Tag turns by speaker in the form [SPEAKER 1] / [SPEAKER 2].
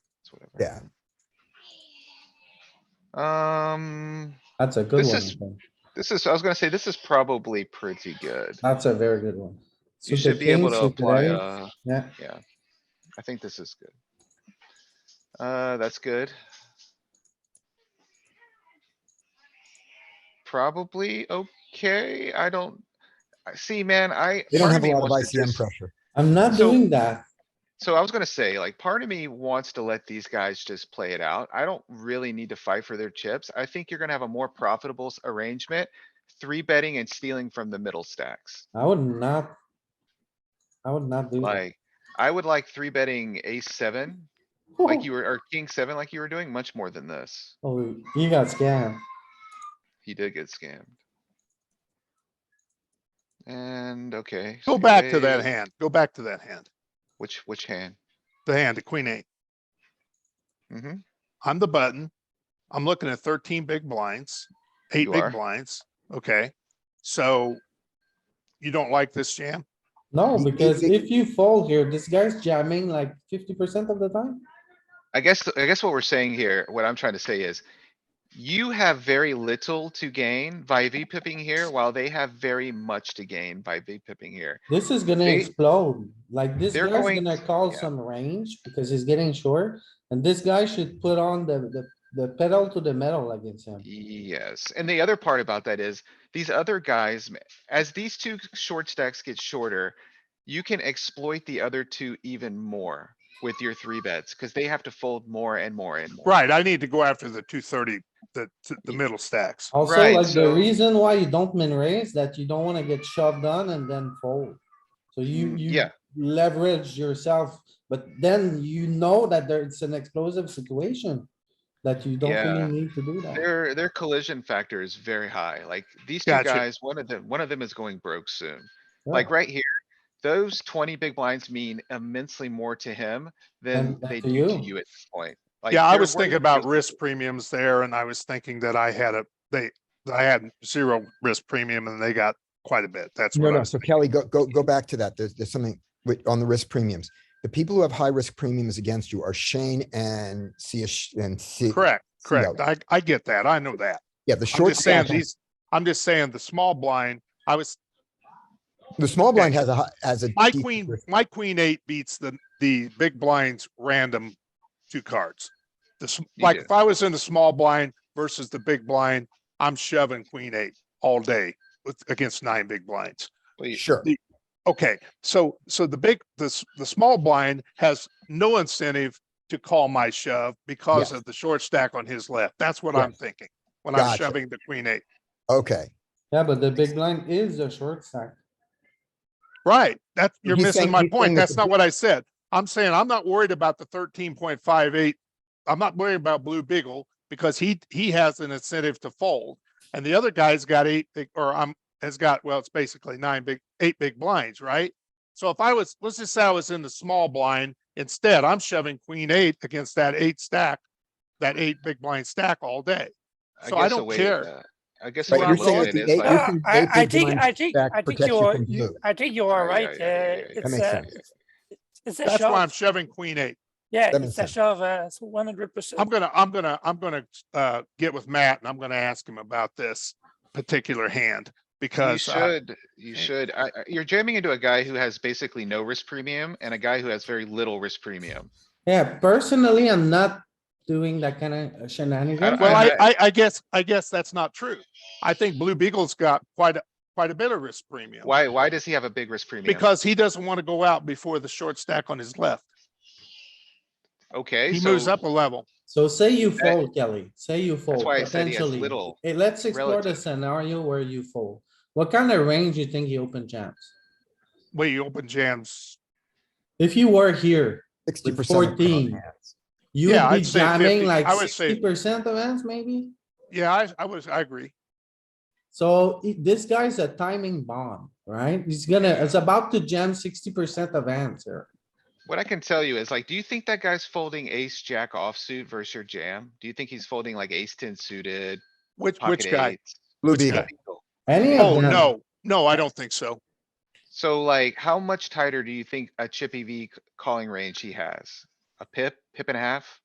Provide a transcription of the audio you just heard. [SPEAKER 1] it's whatever.
[SPEAKER 2] Yeah.
[SPEAKER 1] Um,
[SPEAKER 3] That's a good
[SPEAKER 1] This
[SPEAKER 3] one.
[SPEAKER 1] is-
[SPEAKER 3] I think.
[SPEAKER 1] this is, I was gonna say, this is probably pretty good.
[SPEAKER 3] That's a very good one.
[SPEAKER 1] You
[SPEAKER 3] Suited
[SPEAKER 1] should be able
[SPEAKER 3] kings,
[SPEAKER 1] to
[SPEAKER 3] suited
[SPEAKER 1] apply,
[SPEAKER 3] eights.
[SPEAKER 1] uh,
[SPEAKER 3] Yeah,
[SPEAKER 1] yeah. I think this is good. Uh, that's good. Probably okay. I don't, I see, man, I.
[SPEAKER 2] They
[SPEAKER 1] part
[SPEAKER 2] don't
[SPEAKER 1] of
[SPEAKER 2] have a
[SPEAKER 1] me
[SPEAKER 2] lot of
[SPEAKER 1] wants to
[SPEAKER 2] ICM
[SPEAKER 1] just-
[SPEAKER 2] pressure.
[SPEAKER 3] I'm not
[SPEAKER 1] So-
[SPEAKER 3] doing that.
[SPEAKER 1] So I was gonna say, like, part of me wants to let these guys just play it out. I don't really need to fight for their chips. I think you're gonna have a more profitable s- arrangement. Three betting and stealing from the middle stacks.
[SPEAKER 3] I would not. I would not do that.
[SPEAKER 1] Like, I would like three betting ace seven,
[SPEAKER 4] Oh.
[SPEAKER 1] like you were, or king seven, like you were doing much more than this.
[SPEAKER 3] Oh, you got scammed.
[SPEAKER 1] He did get scammed. And, okay.
[SPEAKER 4] Go back to that
[SPEAKER 1] Skip.
[SPEAKER 4] hand. Go back to that hand.
[SPEAKER 1] Which, which hand?
[SPEAKER 4] The hand, the queen eight.
[SPEAKER 1] hmm
[SPEAKER 4] I'm the button. I'm looking at thirteen big blinds, eight
[SPEAKER 1] You are.
[SPEAKER 4] big blinds. Okay, so you don't like this jam?
[SPEAKER 3] No,
[SPEAKER 2] He- he
[SPEAKER 3] because
[SPEAKER 2] think-
[SPEAKER 3] if you fold here, this guy's jamming like fifty percent of the time.
[SPEAKER 1] I guess, th- I guess what we're saying here, what I'm trying to say is. You have very little to gain by V pipping here, while they have very much to gain by V pipping here.
[SPEAKER 3] This is gonna
[SPEAKER 1] They-
[SPEAKER 3] explode, like this
[SPEAKER 1] They're
[SPEAKER 3] guy's
[SPEAKER 1] going-
[SPEAKER 3] gonna call
[SPEAKER 1] yeah.
[SPEAKER 3] some range because he's getting short. And this guy should put on the, the, the pedal to the metal against him.
[SPEAKER 1] Yes, and the other part about that is, these other guys, ma- as these two short stacks get shorter. You can exploit the other two even more with your three bets, cuz they have to fold more and more and more.
[SPEAKER 4] Right, I need to go after the two thirty, the, the middle stacks.
[SPEAKER 3] Also,
[SPEAKER 1] Right,
[SPEAKER 3] like the
[SPEAKER 1] so-
[SPEAKER 3] reason why you don't min raise that you don't wanna get shoved on and then fold. So you,
[SPEAKER 1] Mm,
[SPEAKER 3] you
[SPEAKER 1] yeah.
[SPEAKER 3] leverage yourself, but then you know that there, it's an explosive situation. That you don't
[SPEAKER 1] Yeah.
[SPEAKER 3] really need to do that.
[SPEAKER 1] Their, their collision factor is very high, like these two
[SPEAKER 4] Gotcha.
[SPEAKER 1] guys, one of them, one of them is going broke soon.
[SPEAKER 3] Yeah.
[SPEAKER 1] Like right here, those twenty big blinds mean immensely more to him than
[SPEAKER 3] than
[SPEAKER 1] they
[SPEAKER 3] to
[SPEAKER 1] do to
[SPEAKER 3] you.
[SPEAKER 1] you at this point. Like,
[SPEAKER 4] Yeah, I
[SPEAKER 1] they're
[SPEAKER 4] was
[SPEAKER 1] worth
[SPEAKER 4] thinking about
[SPEAKER 1] just-
[SPEAKER 4] risk premiums there and I was thinking that I had a, they, that I had zero risk premium and they got quite a bit. That's
[SPEAKER 2] No,
[SPEAKER 4] what I
[SPEAKER 2] no.
[SPEAKER 4] was
[SPEAKER 2] So
[SPEAKER 4] thinking.
[SPEAKER 2] Kelly, go, go, go back to that. There's, there's something with, on the risk premiums. The people who have high risk premiums against you are Shane and C and C.
[SPEAKER 4] Correct,
[SPEAKER 2] See
[SPEAKER 4] correct.
[SPEAKER 2] how-
[SPEAKER 4] I, I get that. I know that.
[SPEAKER 2] Yeah, the
[SPEAKER 4] I'm
[SPEAKER 2] short
[SPEAKER 4] just saying
[SPEAKER 2] stack,
[SPEAKER 4] these, I'm just saying the small blind, I was,
[SPEAKER 2] the small blind has a, hi- has a.
[SPEAKER 4] my
[SPEAKER 2] decent
[SPEAKER 4] queen,
[SPEAKER 2] risk.
[SPEAKER 4] my queen eight beats the, the big blinds random two cards. This,
[SPEAKER 1] You
[SPEAKER 4] like
[SPEAKER 1] do.
[SPEAKER 4] if I was in the small blind versus the big blind, I'm shoving queen eight all day with, against nine big blinds.
[SPEAKER 1] Well, you-
[SPEAKER 2] Sure.
[SPEAKER 4] Okay, so, so the big, the, s- the small blind has no incentive to call my shove because
[SPEAKER 2] Yes.
[SPEAKER 4] of the short stack on his left. That's what
[SPEAKER 2] Yes.
[SPEAKER 4] I'm thinking when I'm
[SPEAKER 2] Gotcha.
[SPEAKER 4] shoving the queen eight.
[SPEAKER 2] Okay.
[SPEAKER 3] Yeah, but the big blind is a short stack.
[SPEAKER 4] Right, that's, you're
[SPEAKER 2] He's
[SPEAKER 4] missing
[SPEAKER 2] saying-
[SPEAKER 4] my
[SPEAKER 2] he's saying
[SPEAKER 4] point.
[SPEAKER 2] that
[SPEAKER 4] That's
[SPEAKER 2] the
[SPEAKER 4] not
[SPEAKER 2] blue-
[SPEAKER 4] what I said. I'm saying I'm not worried about the thirteen point five eight. I'm not worried about Blue Beagle because he, he has an incentive to fold. And the other guy's got eight, big- or I'm, has got, well, it's basically nine big, eight big blinds, right? So if I was, let's just say I was in the small blind, instead I'm shoving queen eight against that eight stack, that eight big blind stack all day. So I
[SPEAKER 1] guess a
[SPEAKER 4] don't
[SPEAKER 1] way to-
[SPEAKER 4] care.
[SPEAKER 1] uh, I guess.
[SPEAKER 2] But
[SPEAKER 1] what
[SPEAKER 2] you're
[SPEAKER 1] I'm looking
[SPEAKER 2] saying
[SPEAKER 1] at
[SPEAKER 2] the
[SPEAKER 1] is
[SPEAKER 2] eight-
[SPEAKER 1] like-
[SPEAKER 2] you're
[SPEAKER 5] Uh,
[SPEAKER 2] think
[SPEAKER 5] I,
[SPEAKER 2] David
[SPEAKER 5] I think,
[SPEAKER 2] Blind's
[SPEAKER 5] I think,
[SPEAKER 2] back
[SPEAKER 5] I think
[SPEAKER 2] protects
[SPEAKER 5] you
[SPEAKER 2] you
[SPEAKER 5] are,
[SPEAKER 2] from
[SPEAKER 5] you,
[SPEAKER 2] blue.
[SPEAKER 5] I think you are
[SPEAKER 1] Yeah, yeah,
[SPEAKER 5] right.
[SPEAKER 1] yeah, yeah,
[SPEAKER 5] uh,
[SPEAKER 1] yeah, yeah.
[SPEAKER 2] That
[SPEAKER 5] It's
[SPEAKER 2] makes
[SPEAKER 5] a,
[SPEAKER 2] sense.
[SPEAKER 5] it's a
[SPEAKER 4] That's why I'm
[SPEAKER 5] shove.
[SPEAKER 4] shoving queen eight.
[SPEAKER 5] Yeah,
[SPEAKER 2] That makes
[SPEAKER 5] it's a
[SPEAKER 2] sense.
[SPEAKER 5] shove, uh, it's one hundred percent.
[SPEAKER 4] I'm gonna, I'm gonna, I'm gonna, uh, get with Matt and I'm gonna ask him about this particular hand
[SPEAKER 1] You
[SPEAKER 4] because, uh,
[SPEAKER 1] should, you should, I, I- you're jamming into a guy who has basically no risk premium and a guy who has very little risk premium.
[SPEAKER 3] Yeah, personally, I'm not doing that kind of
[SPEAKER 1] I-
[SPEAKER 3] shenanigans.
[SPEAKER 4] well, I,
[SPEAKER 1] had-
[SPEAKER 4] I, I guess, I guess that's not true. I think Blue Beagle's got quite, a quite a bit of risk premium.
[SPEAKER 1] Why, why does he have a big risk premium?
[SPEAKER 4] Because he doesn't want to go out before the short stack on his left.
[SPEAKER 1] Okay,
[SPEAKER 4] He moves
[SPEAKER 1] so
[SPEAKER 4] up a level.
[SPEAKER 3] So say you fold, Kelly, say you fold
[SPEAKER 1] why I said he has
[SPEAKER 3] potentially.
[SPEAKER 1] little
[SPEAKER 3] Hey, let's explore the
[SPEAKER 1] relative.
[SPEAKER 3] scenario where you fold. What kind of range you think you open jams?
[SPEAKER 4] Well, you open jams.
[SPEAKER 3] If you were here,
[SPEAKER 2] Sixty
[SPEAKER 3] with
[SPEAKER 2] percent.
[SPEAKER 3] fourteen, you
[SPEAKER 4] Yeah,
[SPEAKER 3] would be
[SPEAKER 4] I'd say
[SPEAKER 3] jamming
[SPEAKER 4] 50.
[SPEAKER 3] like
[SPEAKER 4] I would say-
[SPEAKER 3] sixty percent of hands maybe?
[SPEAKER 4] Yeah, I, I was, I agree.
[SPEAKER 3] So i- this guy's a timing bomb, right? He's gonna, it's about to jam sixty percent of hands here.
[SPEAKER 1] what I can tell you is like, do you think that guy's folding ace, jack offsuit versus your jam? Do you think he's folding like ace ten suited?
[SPEAKER 4] Which,
[SPEAKER 1] pocket
[SPEAKER 4] which guy?
[SPEAKER 1] eights?
[SPEAKER 2] Blue
[SPEAKER 4] Which
[SPEAKER 2] Beagle.
[SPEAKER 4] guy?
[SPEAKER 3] Any of
[SPEAKER 4] Oh,
[SPEAKER 3] them.
[SPEAKER 4] no, no, I don't think so.
[SPEAKER 1] So like, how much tighter do you think a chippy V c- calling range he has? A pip, pip and a half?